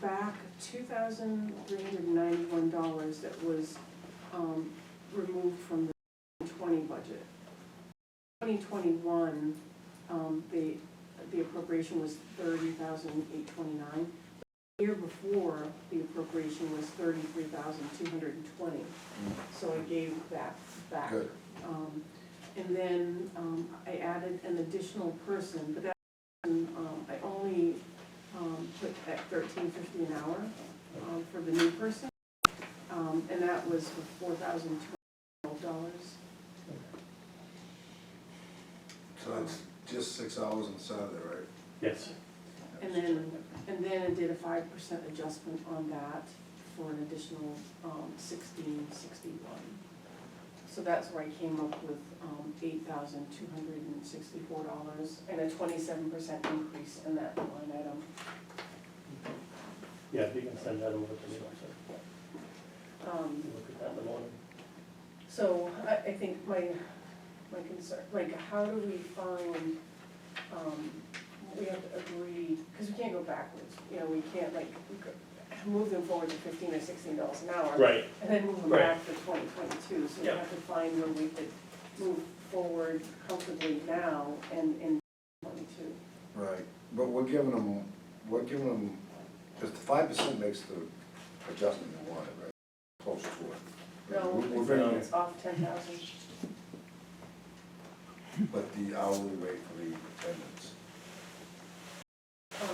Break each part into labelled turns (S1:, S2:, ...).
S1: back two thousand three hundred ninety-one dollars that was, um, removed from the twenty budget. Twenty twenty-one, um, the, the appropriation was thirty thousand eight twenty-nine. The year before, the appropriation was thirty-three thousand two hundred and twenty, so I gave that back.
S2: Good.
S1: Um, and then, um, I added an additional person, but that, person, um, I only, um, put at thirteen fifty an hour, um, for the new person. Um, and that was for four thousand two hundred dollars.
S2: So it's just six hours on Saturday, right?
S3: Yes.
S1: And then, and then it did a five percent adjustment on that for an additional, um, sixteen sixty-one. So that's where I came up with, um, eight thousand two hundred and sixty-four dollars and a twenty-seven percent increase in that line item.
S3: Yeah, if you can send that over to me, so
S1: Um,
S3: we can look at that in the morning.
S1: So I, I think my, my concern, like, how do we find, um, we have to agree, because we can't go backwards, you know, we can't like go- move them forward to fifteen or sixteen dollars an hour.
S3: Right,
S1: And then move them
S3: Right.
S1: back to twenty twenty-two, so we
S3: Yeah.
S1: have to find where we could move forward comfortably now and in twenty-two.
S2: Right, but we're giving them, we're giving them, because the five percent makes the adjustment you wanted, right? Close to it.
S1: No,
S2: We're- We're
S1: it's-
S2: bringing,
S1: it's off ten thousand,
S2: it, but the hourly rate for the attendance.
S1: um,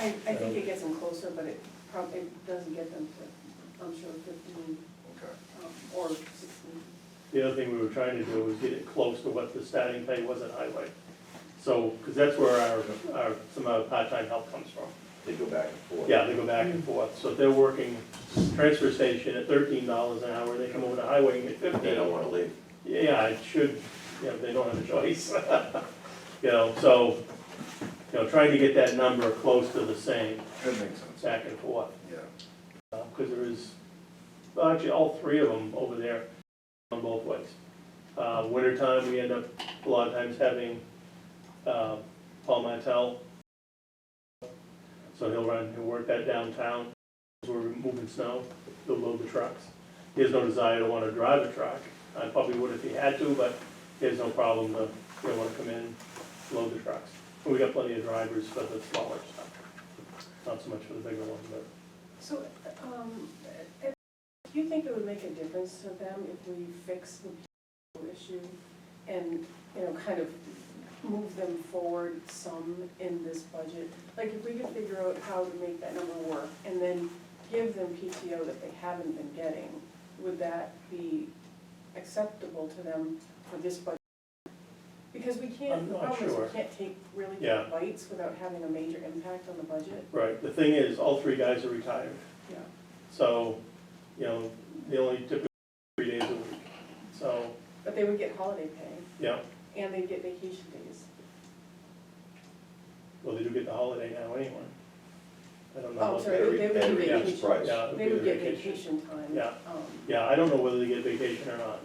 S1: I, I
S3: Um,
S1: think it gets them closer, but it probably, it doesn't get them to, I'm sure fifteen.
S2: Okay,
S1: um, or sixteen.
S3: the other thing we were trying to do was get it close to what the starting pay was at highway. So, because that's where our, our, some of our part-time help comes from.
S4: They go back and forth.
S3: Yeah, they go back and forth, so if they're working transfer station at thirteen dollars an hour, they come over to highway and get
S4: They don't
S3: fifteen.
S4: wanna leave.
S3: Yeah, it should, you know, they don't have a choice. You know, so, you know, trying to get that number close to the same,
S2: that makes sense,
S3: back and forth.
S2: yeah.
S3: because there is, well, actually, all three of them over there on both ways. Uh, Wintertime, we end up a lot of times having uh, Paul Mattel. So he'll run, he'll work that downtown, where we're moving snow, he'll load the trucks. He has no desire to want to drive a truck. I probably would if he had to, but he has no problem to, he'll want to come in, load the trucks. And we got plenty of drivers for the smaller stuff, not so much for the bigger ones, but.
S1: So, um, uh, do you think it would make a difference to them if we fix the people issue and, you know, kind of move them forward some in this budget? Like, if we could figure out how to make that number work and then give them PTO that they haven't been getting, would that be acceptable to them for this budget? Because we can't,
S3: I'm
S1: the
S3: not
S1: problem is we
S3: sure.
S1: can't take really
S3: Yeah.
S1: big bites without having a major impact on the budget.
S3: Right, the thing is, all three guys are retired,
S1: Yeah.
S3: so, you know, they only typically three days a week. So,
S1: But they would get holiday pay,
S3: yeah,
S1: and they'd get vacation days.
S3: well, they do get the holiday now anyway. I don't know.
S1: Oh,
S3: what
S1: sorry,
S3: they-
S1: they would get
S4: Every
S3: reduced
S4: day's
S1: vacation.
S4: price.
S3: Yeah, it
S1: They would
S3: be
S1: get vacation time.
S3: Yeah.
S1: Um,
S3: Yeah, I don't know whether they get vacation or not.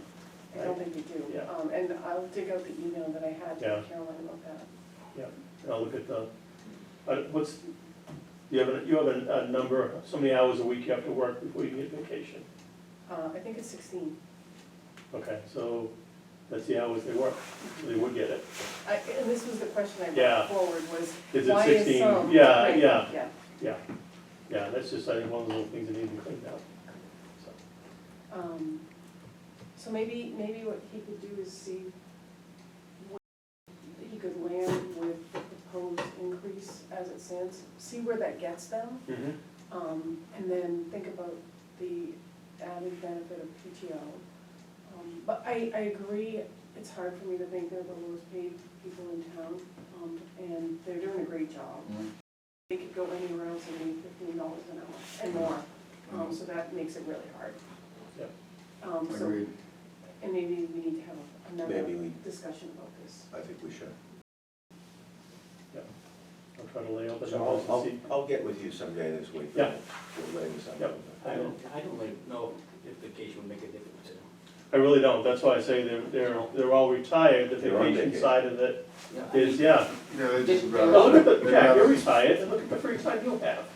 S1: I don't think they do.
S3: Yeah.
S1: Um, and I'll dig out the email that I had
S3: Yeah.
S1: to Caroline about that.
S3: And I'll look at the, uh, what's, you have, a- you have a, a number, so many hours a week you have to work before you can get vacation.
S1: Uh, I think it's sixteen.
S3: Okay, so that's the hours they work, so they would get it.
S1: I, and this was the question I
S3: Yeah.
S1: brought forward was,
S3: Is it
S1: why is
S3: 16?
S1: some?
S3: Yeah,
S1: Right,
S3: yeah.
S1: Yeah,
S3: Yeah, that's just, I think, one of the little things that need to be cleaned up. So,
S1: um, so maybe, maybe what he could do is see what he could land with the proposed increase as it stands, see where that gets them.
S4: Mm-hmm.
S3: mhm.
S1: Um, and then think about the added benefit of PTO. Um, But I, I agree, it's hard for me to think they're the lowest paid people in town, um, and they're doing a great job. They could go anywhere else and make fifteen dollars an hour and more, um, so that makes it really hard.
S3: Yep.
S1: Um, so,
S2: Agreed.
S1: and maybe we need to have
S4: Maybe
S1: another
S4: we,
S1: discussion about this.
S4: I think we should.
S3: I'll try to lay out the
S4: So I'll,
S3: numbers and see.
S4: I'll, I'll get with you someday this week.
S3: Yeah.
S4: We'll lay this out.
S3: Yep.
S5: I don't, I don't like know if vacation would make a difference to them.
S3: I really don't, that's why I say they're, they're, they're all retired, the
S4: They're on
S3: vacation
S4: vacation.
S3: side of it
S5: Yeah, I
S3: is,
S5: mean,
S3: yeah.
S2: Yeah, they
S5: just-
S3: Now, look at the, Jack, you're retired, and look at the free time you have.